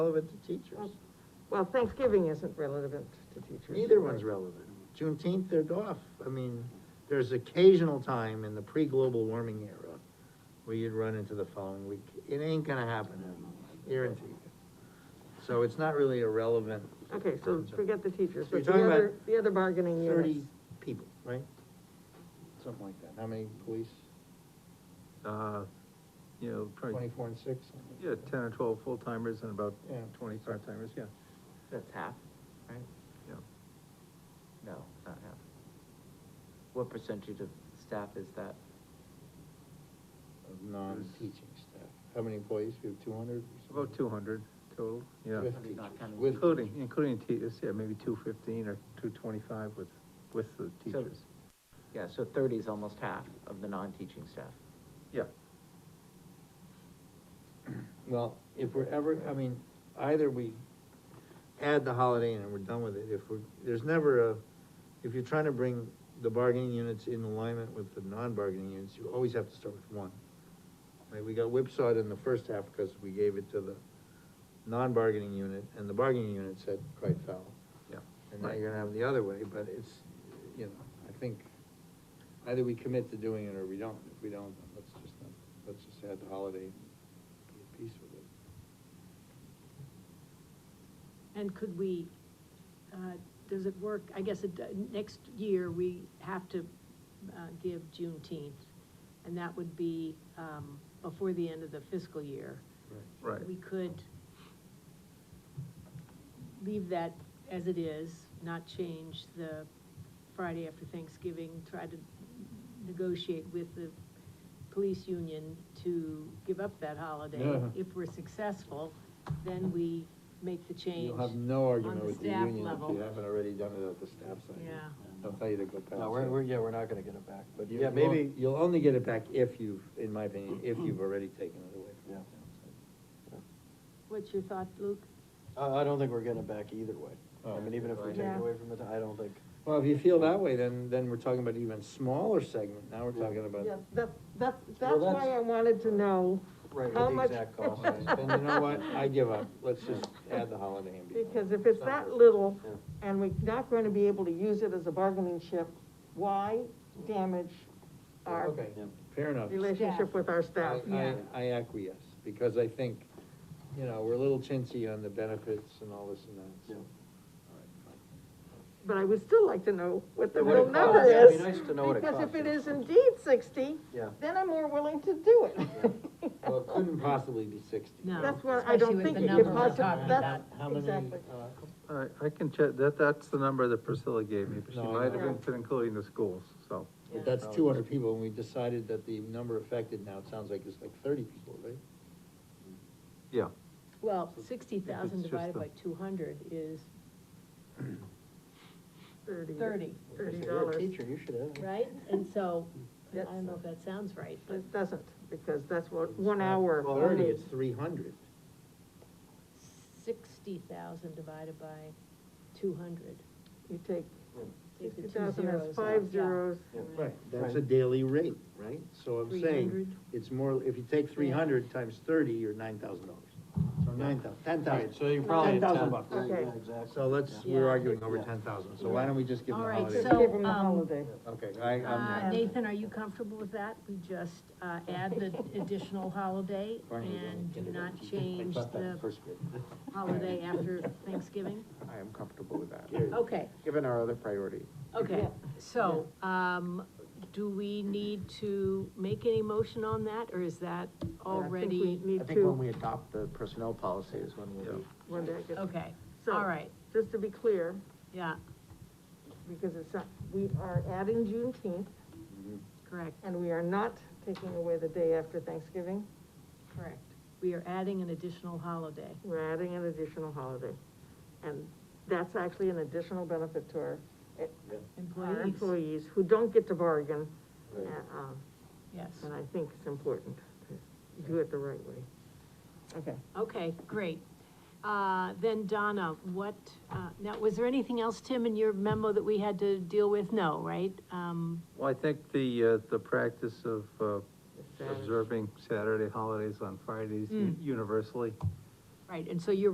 relevant to teachers. Well, Thanksgiving isn't relevant to teachers. Neither one's relevant. Juneteenth, they're off. I mean, there's occasional time in the pre-global warming era where you'd run into the following week. It ain't gonna happen, I guarantee you. So it's not really a relevant Okay, so forget the teachers, So you're but the talking about other, the other bargaining thirty units. people, right? Something like that. How many police? uh, you know, probably, Twenty-four and six? something like yeah, that. ten or twelve full-timers and about Yeah. twenty part-timers, yeah, That's half, right? yeah. No, not half. What percentage of staff is that? Of non-teaching staff. How many employees? We have two hundred? About two hundred total, yeah. With Hundred, not counting With- Including, including teachers, yeah, maybe two fifteen or two twenty-five with, with the So- teachers, Yeah, so thirty is almost half of the non-teaching staff. yeah. Well, if we're ever, I mean, either we add the holiday in and we're done with it, if we're, there's never a, if you're trying to bring the bargaining units in alignment with the non-bargaining units, you always have to start with one. Like, we got whipsawed in the first half because we gave it to the non-bargaining unit, and the bargaining unit said quite foul. Yeah. And now you're gonna have it the other way, but it's, you know, I think, either we commit to doing it or we don't. If we don't, then let's just, not- let's just add the holiday, and be at peace with it. And could we, uh, does it work, I guess, it, next year, we have to, uh, give Juneteenth, and that would be, um, before the end of the fiscal year. Right. We could leave that as it is, not change the Friday after Thanksgiving, try to negotiate with the police union to give up that holiday. Yeah. If we're successul, then we make the change. You'll have no argument on the with the staff union if level. you haven't already done it at the staff side. Yeah. They'll tell you to go past. No, we're, it. we're, yeah, we're not gonna get it back, but You- yeah, maybe, you'll- You'll only get it back if you've, in my opinion, if you've already taken it away from the Yeah. town side. What's your thought, Luke? I, I don't think we're getting it back either way. I Oh. mean, even if we take Yeah. it away from it, I don't think, Well, if you feel that way, then, then we're talking about even smaller segment, now we're talking about. Yeah, that, that, that's Well, why that's- I wanted to know right, how with the much. exact cost. And you know what, I give up, let's just add the holiday and be. done. Because if it's that little, Yeah. and we're not gonna be able to use it as a bargaining chip, why damage our Okay, fair enough. relationship with our I, staff? I- I acquiesce, because I think, you know, we're a little chintzy on the benefits and all this and that, so. Yeah. All right, fine. But I would still like to know what the What it real number costs, yeah, is. it'd be nice to know what it Because if costs. it is indeed sixty, Yeah. then I'm more willing to do it. Well, it couldn't possibly be sixty. No. That's what I don't Especially with think the it number could we're possibly, talking that's, How many, exactly. uh, I, I can check, that, that's the number that Priscilla gave me, but she No, I might know. have been including the schools, so. But that's two hundred people, and we decided that the number affected now, it sounds like it's like thirty people, right? Yeah, Well, sixty thousand It's just divided the- by two hundred is Thirty. thirty, Thirty If you're a dollars. Teacher, you should have. right? And so, I That's- don't know if that sounds right, but, It doesn't, because that's what, one hour. Well, Thirty, it's three hundred. sixty thousand divided by two hundred. You take Take the sixty two thousand, that's zeros five off, yeah. zeros. Right, that's a daily rate, right? So I'm saying, 300. it's more, if you take three hundred times thirty, you're nine thousand dollars. So nine thou, ten thousand. So you're probably probably at 10. bucks. Okay. Yeah, exactly. So let's, Yeah. we're arguing over Yeah. ten thousand, so why don't we just give them All a right, holiday? so- Give them a um, holiday. Okay, I, Uh, I'm, Nathan, are you comfortable with that? We just, uh, add the additional holiday Barney was only and do kindergarten not teacher. change I taught that in the First grade. holiday after Thanksgiving? I am comfortable with that, Okay, given our other priority. okay, so, um, do we need to make any motion on that, or is that I think already? we need to, we adopt the personnel policy is when we'll be- one day, I guess. Okay, So- all right, just to be clear, yeah, because it's not, we are adding Juneteenth, correct, and we are not taking away the day after Thanksgiving, correct. We are adding an additional holiday. we're adding an additional holiday. And that's actually an additional benefit to our, eh, our Employees, employees who don't get to bargain. Right. uh, um, yes. And I think it's important to do it the right way. Okay. Okay, great. Uh, Then Donna, what, uh, now, was there anything else, Tim, in your memo that we had to deal with? No, right? Um, well, I think the, uh, the practice of, uh, Saturday. observing Saturday holidays on Fridays u- universally Right, and so you're